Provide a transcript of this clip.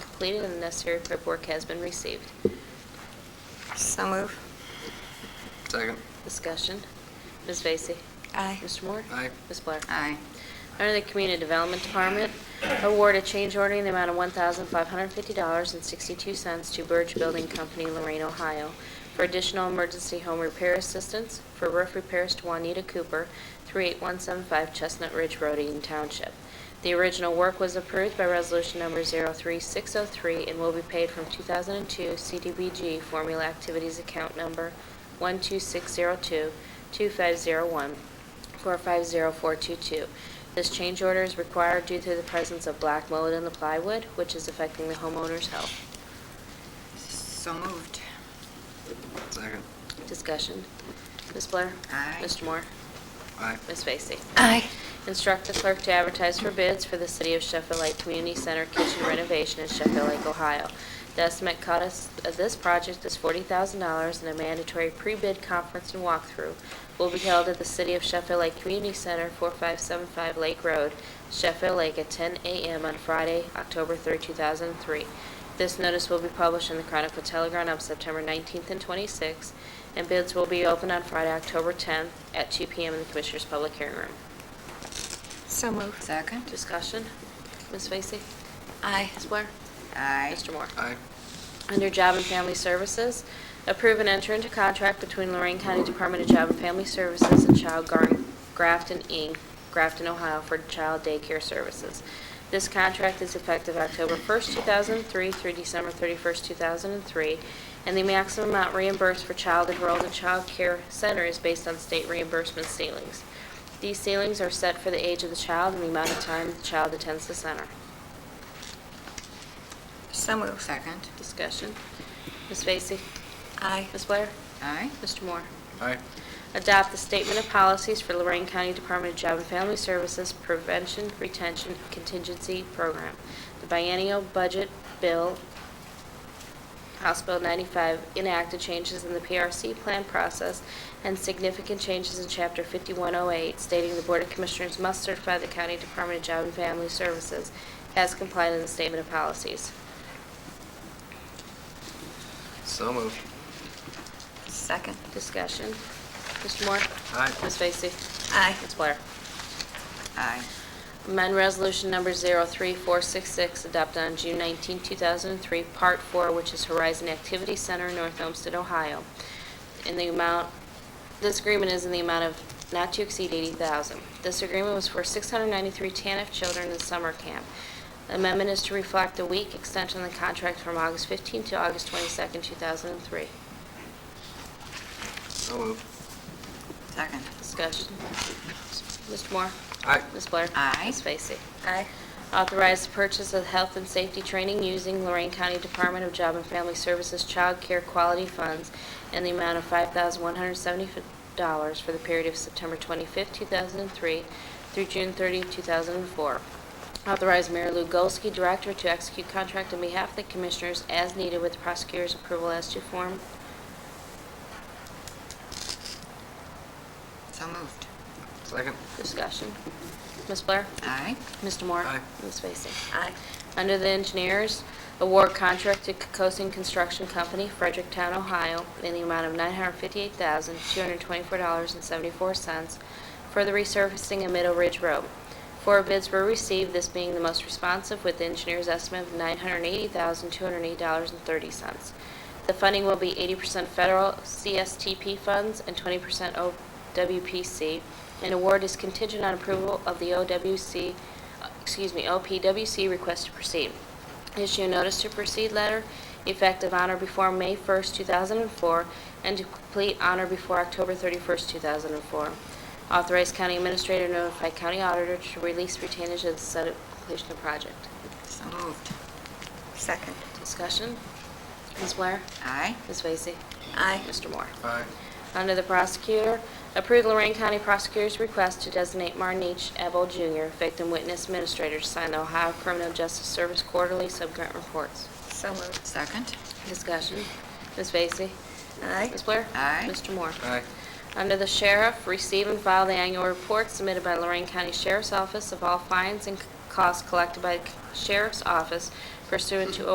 completed and the necessary paperwork has been received. So move. Second. Discussion. Ms. Vacy? Aye. Mr. Moore? Aye. Ms. Blair? Aye. Under the Community Development Department, award a change order in the amount of $1,550.62 to Burge Building Company, Lorraine, Ohio, for additional emergency home repair assistance for roof repairs to Juanita Cooper, 38175 Chestnut Ridge Road, Eaton Township. The original work was approved by Resolution Number 03603 and will be paid from 2002 CDBG Formula Activities Account Number 12602-2501 450422. This change order is required due to the presence of black mold in the plywood, which is affecting the homeowner's health. So moved. Second. Discussion. Ms. Blair? Aye. Mr. Moore? Aye. Ms. Vacy? Aye. Instruct the clerk to advertise for bids for the City of Sheffield Lake Community Center kitchen renovation in Sheffield Lake, Ohio. The estimate cost of this project is $40,000 and a mandatory pre-bid conference and walkthrough will be held at the City of Sheffield Lake Community Center, 4575 Lake Road, Sheffield Lake at 10 a.m. on Friday, October 3, 2003. This notice will be published in the Chronicle Telegram on September 19th and 26th, and bids will be open on Friday, October 10th at 2 p.m. in the Commissioners' Public Hearing Room. So moved. Second. Discussion. Ms. Vacy? Aye. Ms. Blair? Aye. Mr. Moore? Aye. Under Job and Family Services, approve and enter into contract between Lorraine County Department of Job and Family Services and Child Gar- Grafton, Inc., Grafton, Ohio, for child daycare services. This contract is effective October 1st, 2003 through December 31st, 2003, and the maximum amount reimbursed for child enrolled in child care center is based on state reimbursement ceilings. These ceilings are set for the age of the child and the amount of time the child attends the center. So moved. Second. Discussion. Ms. Vacy? Aye. Ms. Blair? Aye. Mr. Moore? Aye. Adopt the Statement of Policies for Lorraine County Department of Job and Family Services Prevention Retention Contingency Program. The biennial budget bill, House Bill 95, enacted changes in the PRC plan process and significant changes in Chapter 5108, stating the Board of Commissioners must certify the County Department of Job and Family Services as compliant in the Statement of Policies. So moved. Second. Discussion. Mr. Moore? Aye. Ms. Vacy? Aye. Ms. Blair? Aye. Amend Resolution Number 03466, adopted on June 19, 2003, Part 4, which is Horizon Activity Center, North Olmsted, Ohio. In the amount, this agreement is in the amount of not to exceed 80000 This agreement was for 693 TANF children in summer camp. Amendment is to reflect a week extension of the contract from August 15 to August 22, 2003. So moved. Second. Discussion. Mr. Moore? Aye. Ms. Blair? Aye. Ms. Vacy? Aye. Authorize the purchase of health and safety training using Lorraine County Department of Job and Family Services Child Care Quality Funds in the amount of $5,170 for the period of September 25, 2003 through June 30, 2004. Authorize Mayor Lou Golsky, Director, to execute contract on behalf of the Commissioners as needed with the prosecutor's approval as to form. So moved. Second. Discussion. Ms. Blair? Aye. Mr. Moore? Aye. Ms. Vacy? Aye. Under the engineers, award contract to Cocosing Construction Company, Fredericktown, Ohio, in the amount of $958,224.74 for the resurfacing of Middle Ridge Road. Four bids were received, this being the most responsive with the engineer's estimate of $980,208.30. The funding will be 80% federal CSTP funds and 20% OWPC, and award is contingent on approval of the OWC excuse me, LPWC request to proceed. Issue a notice to proceed letter effective honor before May 1st, 2004, and to complete honor before October 31st, 2004. Authorize county administrator to notify county auditor to release retainage of the set of completion of project. So moved. Second. Discussion? Ms. Blair? Aye. Ms. Vacy? Aye. Mr. Moore? Aye. Under the prosecutor, approve Lorraine County Prosecutor's request to designate Martin H. Ebel Jr., victim witness administrator, to sign the Ohio Criminal Justice Service Quarterly Subgrant Reports. So moved. Second. Discussion. Ms. Vacy? Aye. Ms. Blair? Aye. Mr. Moore? Aye. Under the sheriff, receive and file the annual report submitted by Lorraine County Sheriff's Office of all fines and costs collected by the sheriff's office pursuant to